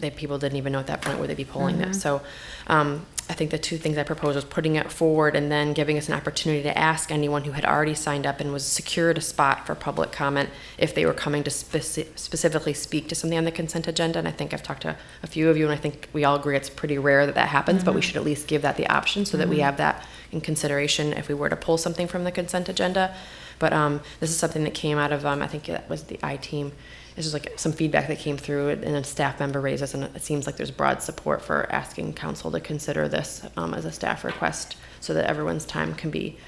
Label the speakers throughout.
Speaker 1: that people didn't even know at that point where they'd be polling them. So um, I think the two things I proposed was putting it forward and then giving us an opportunity to ask anyone who had already signed up and was secured a spot for public comment if they were coming to speci- specifically speak to something on the consent agenda. And I think I've talked to a few of you, and I think we all agree it's pretty rare that that happens, but we should at least give that the option so that we have that in consideration if we were to pull something from the consent agenda. But um, this is something that came out of, um, I think that was the I team. It's just like some feedback that came through, and a staff member raised this, and it seems like there's broad support for asking council to consider this um, as a staff request so that everyone's time can be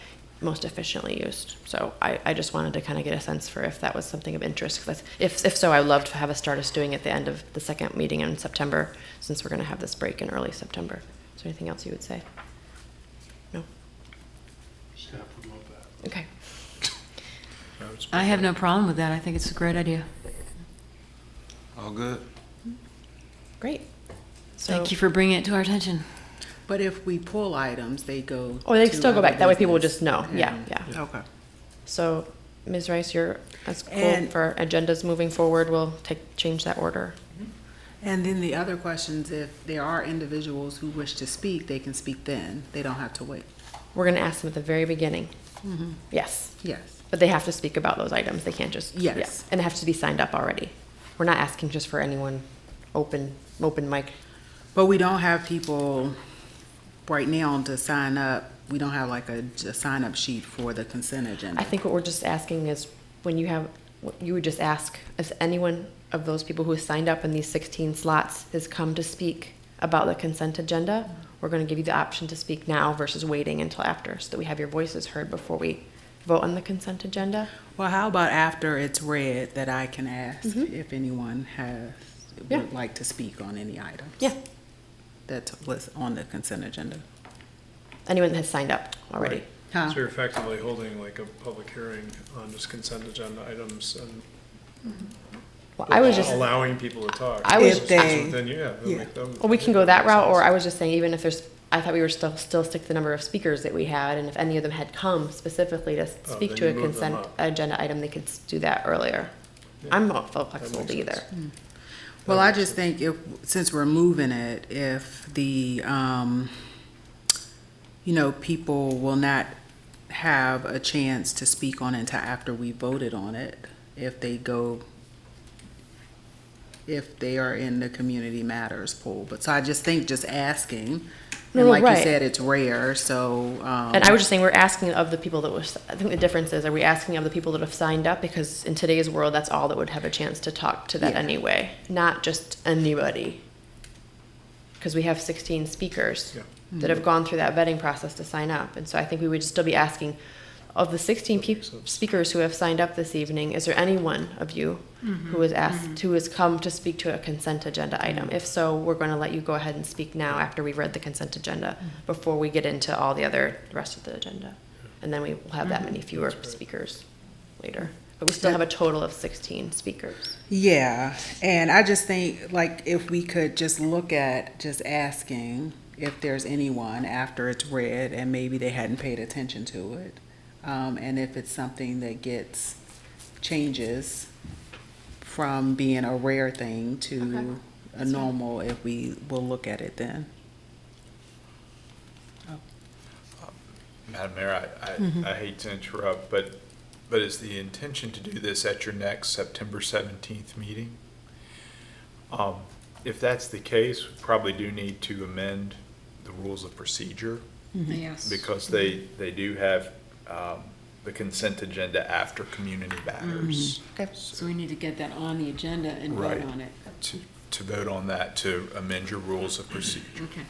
Speaker 1: most efficiently used. So I, I just wanted to kind of get a sense for if that was something of interest. 'cause that's- if, if so, I would love to have us start us doing it at the end of the second meeting in September, since we're going to have this break in early September. Is there anything else you would say? No?
Speaker 2: Staff would love that.
Speaker 1: Okay.
Speaker 3: I have no problem with that. I think it's a great idea.
Speaker 4: All good.
Speaker 1: Great. So-
Speaker 3: Thank you for bringing it to our attention.
Speaker 5: But if we pull items, they go.
Speaker 1: Oh, they
Speaker 5: to
Speaker 1: still go
Speaker 5: other
Speaker 1: back. That way people will
Speaker 5: business.
Speaker 1: just know. Yeah, yeah.
Speaker 5: Okay.
Speaker 1: So, Ms. Rice, you're, that's cool
Speaker 5: And-
Speaker 1: for agendas moving forward. We'll take, change that order.
Speaker 5: And then the other questions, if there are individuals who wish to speak, they can speak then. They don't have to wait.
Speaker 1: We're gonna ask them at the very beginning.
Speaker 5: Mm-hmm.
Speaker 1: Yes,
Speaker 5: Yes.
Speaker 1: but they have to speak about those items. They can't just. yeah.
Speaker 5: Yes.
Speaker 1: And they have to be signed up already. We're not asking just for anyone open, open mic.
Speaker 5: But we don't have people right now to sign up. We don't have like a, a sign up sheet for the consent
Speaker 1: I
Speaker 5: agenda.
Speaker 1: think what we're just asking is when you have, what you would just ask if anyone of those people who has signed up in these 16 slots has come to speak about the consent agenda, we're going to give you the option to speak now versus waiting until after so that we have your voices heard before we vote on the consent agenda.
Speaker 5: Well, how about after it's read that I can ask if anyone has,
Speaker 1: Mm-hmm. Yeah.
Speaker 5: would like to speak on any items?
Speaker 1: Yeah.
Speaker 5: That was on the consent agenda.
Speaker 1: Anyone that has signed up already.
Speaker 2: Right.
Speaker 5: Huh?
Speaker 2: So you're effectively holding like a public hearing on just consent agenda items and
Speaker 1: Well, I was
Speaker 2: al-
Speaker 1: just, well,
Speaker 2: allowing people to talk.
Speaker 1: I was-
Speaker 2: It's-
Speaker 5: If
Speaker 2: it's
Speaker 5: they-
Speaker 2: within- yeah. that
Speaker 5: yeah.
Speaker 2: make- that would-
Speaker 1: we can go that
Speaker 2: makes
Speaker 1: route, or
Speaker 2: sense.
Speaker 1: I was just saying, even if there's, I thought we were still, still stick to the number of speakers that we had, and if any of them had come specifically to speak
Speaker 2: Oh, then
Speaker 1: to a
Speaker 2: you move them
Speaker 1: consent
Speaker 2: up.
Speaker 1: agenda item, they could s- do that earlier.
Speaker 2: Yeah.
Speaker 1: I'm not flexible
Speaker 2: makes
Speaker 1: to either.
Speaker 2: sense.
Speaker 5: Well, I just think if, since we're moving it, if the, um, you know, people will not have a chance to speak on it until after we voted on it, if they go, if they are in the community matters pool. But, so I just think just asking,
Speaker 1: No,
Speaker 5: and
Speaker 1: no,
Speaker 5: like you
Speaker 1: right.
Speaker 5: said, it's rare, so, um.
Speaker 1: And I was just saying, we're asking of the people that was, I think the difference is, are we asking of the people that have signed up? Because in today's world, that's all that would have a chance to talk to that
Speaker 5: Yeah.
Speaker 1: anyway, not just anybody. Because we have sixteen speakers
Speaker 2: Yeah.
Speaker 1: that have gone through that vetting process to sign up. And so I think we would still be asking, of the sixteen peop speakers who have signed up this evening, is there anyone of you who has asked, who has come to speak to a consent agenda item? If so, we're going to let you go ahead and speak now after we've read the consent agenda, before we get into all the other, the rest of the agenda. And then we will have that many fewer speakers later. But we still have a total of sixteen speakers.
Speaker 5: Yeah, and I just think like if we could just look at just asking if there's anyone after it's read and maybe they hadn't paid attention to it, um, and if it's something that gets changes from being a rare thing to a normal, if we will look at it then.
Speaker 4: Madam Mayor, I, I, I hate to interrupt, but, but is the intention to do this at your next September seventeenth meeting? Um, if that's the case, we probably do need to amend the rules of procedure.
Speaker 3: Yes.
Speaker 4: Because they, they do have, um, the consent agenda after community matters.
Speaker 1: Okay.
Speaker 3: So we need to get that on the agenda and vote
Speaker 4: Right.
Speaker 3: on it.
Speaker 4: To, to vote on that, to amend your rules of procedure.
Speaker 3: Okay.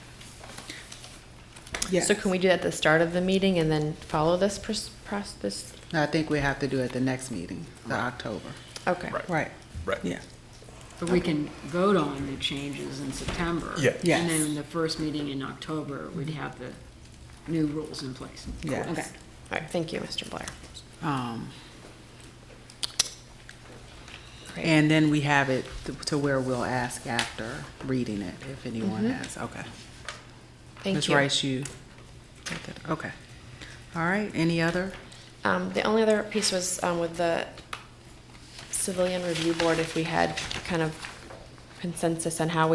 Speaker 5: Yeah,
Speaker 1: So can we do that at the start of the meeting and then follow this pros- process, this?
Speaker 5: I think we have to do it the next meeting, the October.
Speaker 1: Okay.
Speaker 4: Right.
Speaker 5: Right.
Speaker 4: Right.
Speaker 5: Yeah.
Speaker 3: But we can vote on the changes in September.
Speaker 4: Yeah.
Speaker 5: Yes.
Speaker 3: And then the first meeting in October, we'd have the new rules in place.
Speaker 5: Yes.
Speaker 3: Okay.
Speaker 1: All right, thank you, Mr. Blair.
Speaker 5: Um,
Speaker 1: Great.
Speaker 5: And then we have it to- to where we'll ask after reading it, if anyone has, okay.
Speaker 1: Mm-hmm. Thank
Speaker 5: Ms.
Speaker 1: you.
Speaker 5: Rice, you, got that? okay. All right, any other?
Speaker 1: Um, the only other piece was, um, with the civilian review board, if we had kind of consensus on how we